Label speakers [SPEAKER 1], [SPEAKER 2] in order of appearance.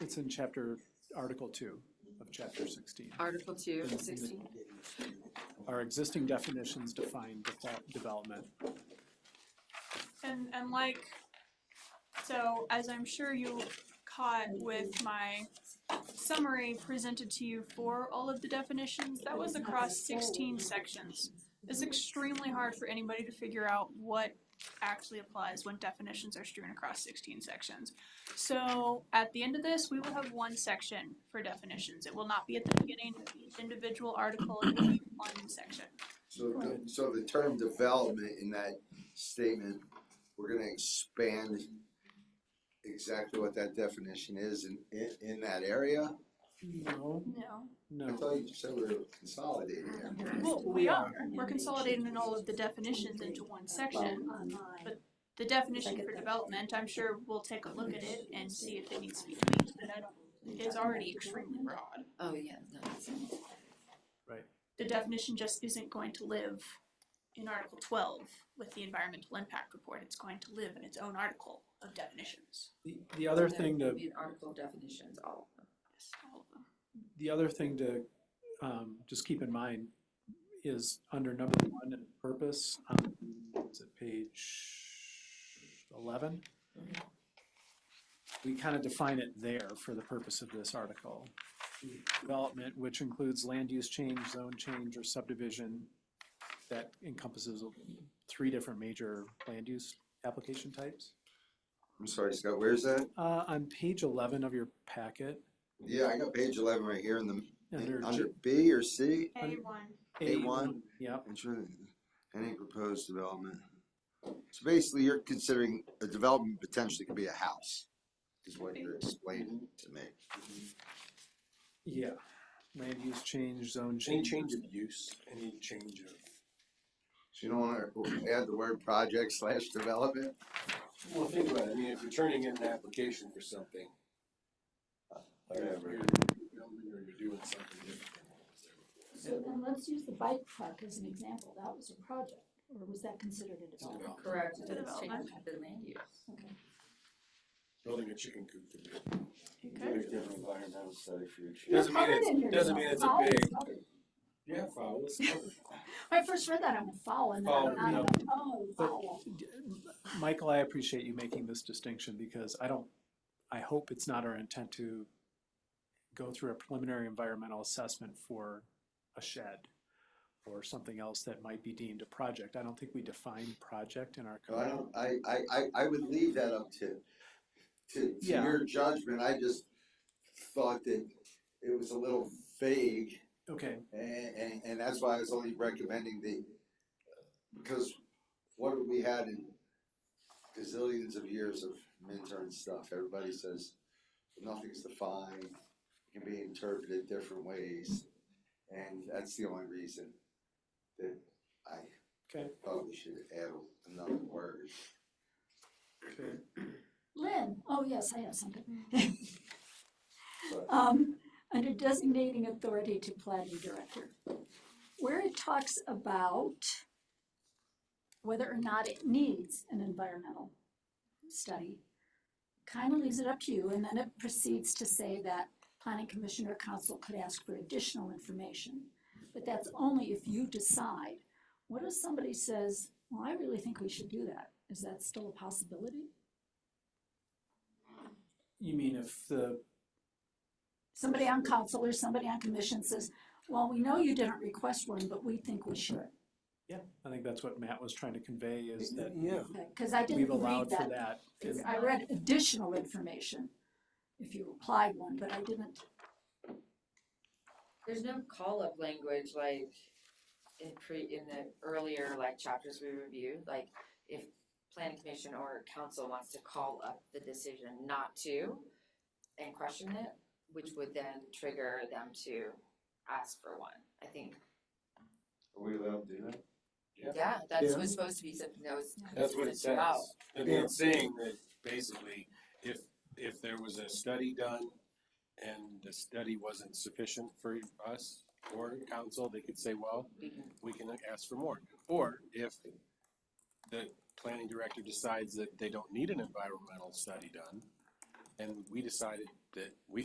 [SPEAKER 1] It's in chapter, Article two of chapter sixteen.
[SPEAKER 2] Article two, sixteen,
[SPEAKER 1] Our existing definitions define defa- development.
[SPEAKER 3] And and like, so as I'm sure you caught with my summary presented to you for all of the definitions, that was across sixteen sections. It's extremely hard for anybody to figure out what actually applies when definitions are strewn across sixteen sections. So at the end of this, we will have one section for definitions. It will not be at the beginning of each individual article, it will be one section.
[SPEAKER 4] So, the- so the term development in that statement, we're gonna expand exactly what that definition is in, in, in that area?
[SPEAKER 1] No,
[SPEAKER 3] No.
[SPEAKER 4] I
[SPEAKER 1] no,
[SPEAKER 4] thought you said we were consolidating it.
[SPEAKER 3] Well,
[SPEAKER 2] We
[SPEAKER 3] we are, we're consolidating in all of the definitions into one section. But the definition for development, I'm sure we'll take a look at it and see if it needs to be tweaked, but I don't, it's already extremely broad.
[SPEAKER 2] oh yeah, no, that's-
[SPEAKER 3] The definition just isn't going to live in Article twelve with the environmental impact report, it's going to live in its own article of definitions.
[SPEAKER 1] the, the other thing
[SPEAKER 2] that
[SPEAKER 1] to
[SPEAKER 2] would be an Article definitions, all of them.
[SPEAKER 3] Yes, all of them.
[SPEAKER 1] the other thing to um just keep in mind is under number one and purpose, um, is it page eleven? We kind of define it there for the purpose of this article. Development, which includes land use change, zone change, or subdivision that encompasses three different major land use application types.
[SPEAKER 4] I'm sorry, Scott, where's that?
[SPEAKER 1] Uh, on page eleven of your packet,
[SPEAKER 4] Yeah, I got page eleven right here in the,
[SPEAKER 1] under
[SPEAKER 4] in- under B or C?
[SPEAKER 3] A one,
[SPEAKER 1] A one,
[SPEAKER 4] A1.
[SPEAKER 1] yep.
[SPEAKER 4] Ensure Any proposed development. So basically, you're considering a development potentially could be a house, is what you're explaining to me.
[SPEAKER 1] Yeah, land use change, zone
[SPEAKER 5] Any
[SPEAKER 1] change.
[SPEAKER 5] change of use, any change of,
[SPEAKER 4] So you don't wanna add the word project slash development?
[SPEAKER 5] well, think about it, I mean, if you're turning in an application for something. uh, you're-
[SPEAKER 4] Whatever.
[SPEAKER 5] You're building or you're doing something different than what was there before.
[SPEAKER 6] So then let's use the bike park as an example, that was a project, or was that considered a
[SPEAKER 5] It's a
[SPEAKER 6] development?
[SPEAKER 5] development.
[SPEAKER 2] Correct, it does change the land use.
[SPEAKER 6] Okay,
[SPEAKER 5] Building a chicken coop could be.
[SPEAKER 3] okay,
[SPEAKER 5] environmental study for your. Doesn't mean it's, doesn't mean it's a big, yeah, foul, it's covered.
[SPEAKER 6] When I first read that, I'm a foul, and then
[SPEAKER 5] Foul,
[SPEAKER 6] I'm
[SPEAKER 5] yeah.
[SPEAKER 6] like, oh, foul,
[SPEAKER 1] Michael, I appreciate you making this distinction because I don't, I hope it's not our intent to go through a preliminary environmental assessment for a shed or something else that might be deemed a project. I don't think we define project in our
[SPEAKER 4] No, I
[SPEAKER 1] code.
[SPEAKER 4] don't, I, I, I, I would leave that up to, to, to
[SPEAKER 1] Yeah.
[SPEAKER 4] your judgment, I just thought that it was a little vague,
[SPEAKER 1] Okay,
[SPEAKER 4] and, and, and that's why I was only recommending the, because what have we had in gazillions of years of Minter and stuff, everybody says, nothing's defined, it can be interpreted different ways, and that's the only reason that I
[SPEAKER 1] okay,
[SPEAKER 4] thought we should add another word.
[SPEAKER 1] okay.
[SPEAKER 6] Lynn, oh yes, I have something.
[SPEAKER 4] But-
[SPEAKER 6] Um, under designating authority to planning director, where it talks about whether or not it needs an environmental study, kind of leaves it up to you, and then it proceeds to say that planning commission or council could ask for additional information. But that's only if you decide. What if somebody says, well, I really think we should do that? Is that still a possibility?
[SPEAKER 1] You mean if the,
[SPEAKER 6] somebody on council or somebody on commission says, well, we know you didn't request one, but we think we should.
[SPEAKER 1] yeah, I think that's what Matt was trying to convey is that
[SPEAKER 5] Yeah.
[SPEAKER 6] Okay, Cause I
[SPEAKER 1] we've
[SPEAKER 6] didn't read
[SPEAKER 1] allowed for
[SPEAKER 6] that,
[SPEAKER 1] that.
[SPEAKER 6] 'cause I read additional information if you applied one, but I didn't.
[SPEAKER 2] There's no call-up language like in pre, in the earlier like chapters we reviewed, like if planning commission or council wants to call up the decision not to and question it, which would then trigger them to ask for one, I think.
[SPEAKER 4] Are we allowed to do that?
[SPEAKER 5] Yeah.
[SPEAKER 2] Yeah, that's
[SPEAKER 5] Yeah.
[SPEAKER 2] was supposed to be something that was.
[SPEAKER 5] That's what it
[SPEAKER 2] it's about.
[SPEAKER 5] says. I mean, it's saying that basically, if, if there was a study done and the study wasn't sufficient for us or council, they could say, well,
[SPEAKER 2] We can-
[SPEAKER 5] we can ask for more. Or if the planning director decides that they don't need an environmental study done, and we decided that we